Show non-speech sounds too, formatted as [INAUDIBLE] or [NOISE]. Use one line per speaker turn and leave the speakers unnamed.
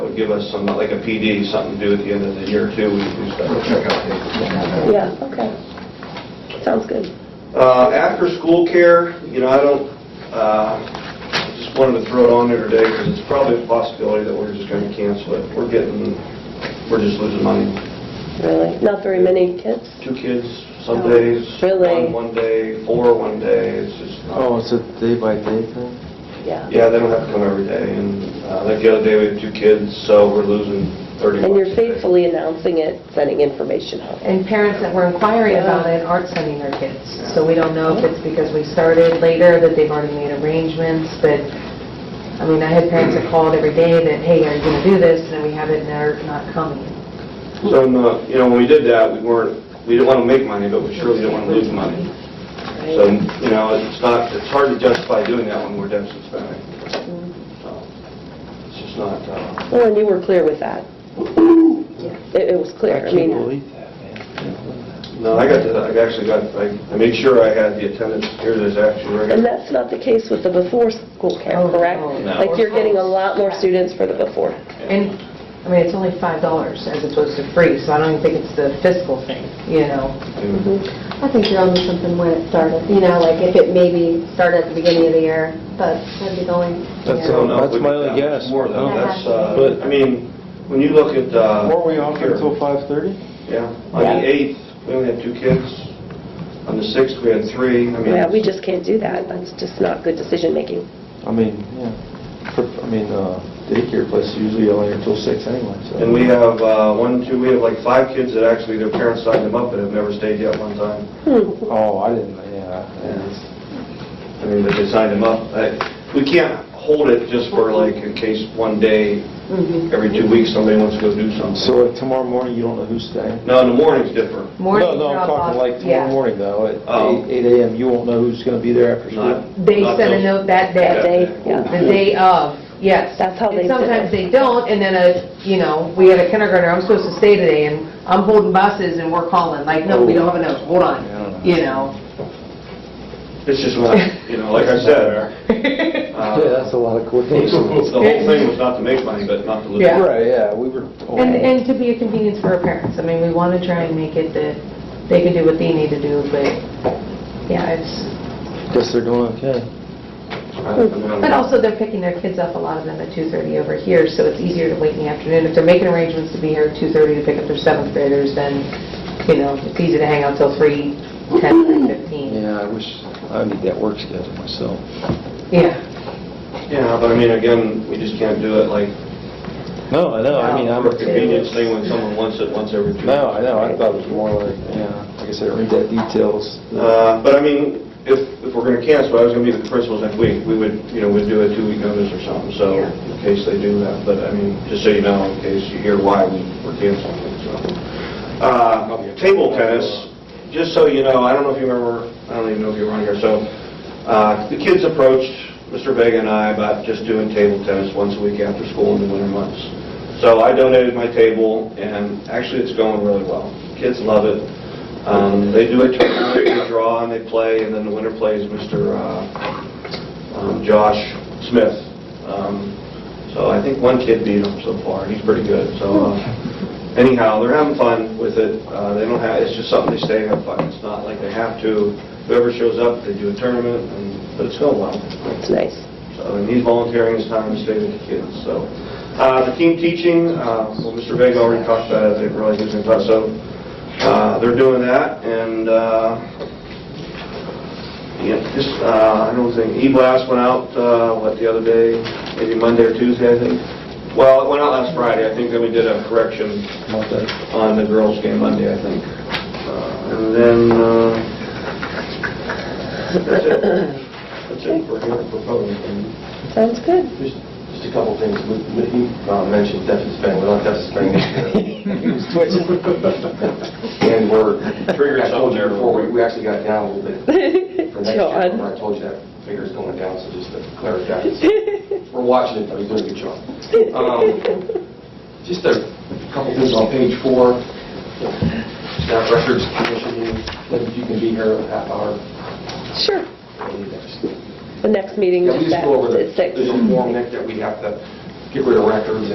would give us some, like a PD, something to do at the end of the year too. We could do stuff.
We'll check out the...
Yeah, okay. Sounds good.
Uh, After-school care, you know, I don't, uh, just wanted to throw it on there today because it's probably a possibility that we're just going to cancel it. We're getting, we're just losing money.
Really? Not very many kids?
Two kids some days.
Really?
One one day, four one day, it's just not...
Oh, it's a day by day thing?
Yeah.
Yeah, they don't have to come every day, and uh, like the other day, we had two kids, so we're losing 30
And
bucks a
you're
day.
faithfully announcing it, sending information out.
And parents that were inquiring about it aren't sending their kids. So we don't know if it's because we started later, that they've already made arrangements, but, I mean, I had parents that called every day that, hey, are you going to do this? And then we have it, and they're not coming.
So, in the- you know, when we did that, we weren't, we didn't want to make money, but we surely didn't want to lose money. So, you know, it's not, it's hard to justify doing that when we're deficit spending. So, It's just not, uh,
Well, and you were clear with that. It it was clear. I mean,
that, man.
no, I got, the- I actually got, I I made sure I had the attendance, here it is actually, right here.
and that's not the case with the before-school care,
Oh,
correct?
no.
Like, you're getting a lot more students for the before.
And, I mean, it's only $5 as opposed to free, so I don't even think it's the fiscal thing, you know?
I think you're onto something when it started, you know, like if it maybe started at the beginning of the year, but that'd be the only.
That's
So,
all.
no, we
That's my
make
only
that much
guess.
More though,
Yeah.
that's, uh,
But-
I mean, when you look at, uh...
Were we off
here-
until 5:30?
Yeah, on
Yeah.
the 8th, we only had two kids. On the 6th, we had three. I mean,
Yeah, we just can't do that. That's just not good decision-making.
I mean, yeah. For- I mean, uh, daycare place usually only until 6 anyway, so.
And we have uh, one, two, we have like five kids that actually their parents signed them up and have never stayed yet one time.
Oh, I didn't, yeah. yeah.
I mean, but they signed them up. I- We can't hold it just for like in case one day,
Mm-hmm.
every two weeks, somebody wants to go do something.
So like tomorrow morning, you don't know who's staying?
No, in the morning's different.
Morning
No, no, I'm talking
drop-off,
like tomorrow
yeah.
morning though, at
Oh.
eight- 8 AM, you won't know who's going to be there after
Not-
school?
They
not
send a
those-
note that day.
That day, yeah.
The day of, yes.
That's how they
And
did it.
sometimes they don't, and then a, you know, we had a kindergartner, I'm supposed to stay today, and I'm holding buses, and we're calling, like, no, we don't have a note, hold on, you know.
It's just, not- you know, like I said, uh,
a lot
[LAUGHS]
of
the whole thing was not to make money, but not to lose.
Yeah.
Right, [LAUGHS] yeah, we were.
[LAUGHS] And, and to be a convenience for our parents, I mean, we want to try and make it that they can do what they need to do, but, yeah, it's,
Guess they're doing okay.
I don't know.
but also they're picking their kids up, a lot of them at 2:30 over here, so it's easier to wait in the afternoon. If they're making arrangements to be here at 2:30 to pick up their seventh graders, then, you know, it's easy to hang out till 3, 10, 15.
Yeah, I wish, I need that work schedule myself.
Yeah.
Yeah, but I mean, again, we just can't do it like
No, I know, I mean, I'm.
for convenience thing when someone wants it once every two.
No, I know, I thought it was more like, yeah, like I said, read that details.
Uh, [LAUGHS] But I mean, if, if we're going to cancel, I was going to meet with the principals next week, we would, you know, we'd do a two-week notice or something, so
Yeah.
in case they do that, but I mean, just so you know, in case you hear why we- we're canceling it, so. Uh, Table tennis, just so you know, I don't know if you remember, I don't even know if you were on here, so uh, the kids approached Mr. Vega and I about just doing table tennis once a week after school in the winter months. So I donated my table, and actually, it's going really well. Kids love it. Um, They do a tournament, they draw, and they play, and then the winner plays Mr. uh, um, Josh Smith. Um, So I think one kid beat him so far, he's pretty good. So uh, anyhow, they're having fun with it. Uh, They don't have, it's just something they stay and have fun. It's not like they have to. Whoever shows up, they do a tournament, and but it's going well.
It's nice.
So, and he's volunteering his time to stay with the kids, so. Uh, The team teaching, uh, well, Mr. Vega already talked about it, I didn't realize he was going to talk, so uh, they're doing that, and, uh, yeah, just, uh, I don't think, E-Blast went out, uh, what, the other day, maybe Monday or Tuesday, I think? Well, it went out last Friday, I think, then we did a correction
Not that-
on the girls' game Monday, I think. Uh, And then, uh, that's it. That's it for here, for public.
Sounds good.
Just just a couple things. We- we- You uh, mentioned deficit spending, we're not deficit spending this year. And we're,
Triggered
I told you
something.
before, we- we actually got down a little bit for next year.
[LAUGHS] John.
Remember I told you that figure's going down, so just to clarify. We're watching it, though, you're doing a good job. Um, Just a couple things on page four. Staff records commission, maybe you can be here a half hour.
Sure.
maybe next.
The next meeting
Yeah, we
is
just
at
go over the,
at six.
there's a form, Nick, that we have to get rid of records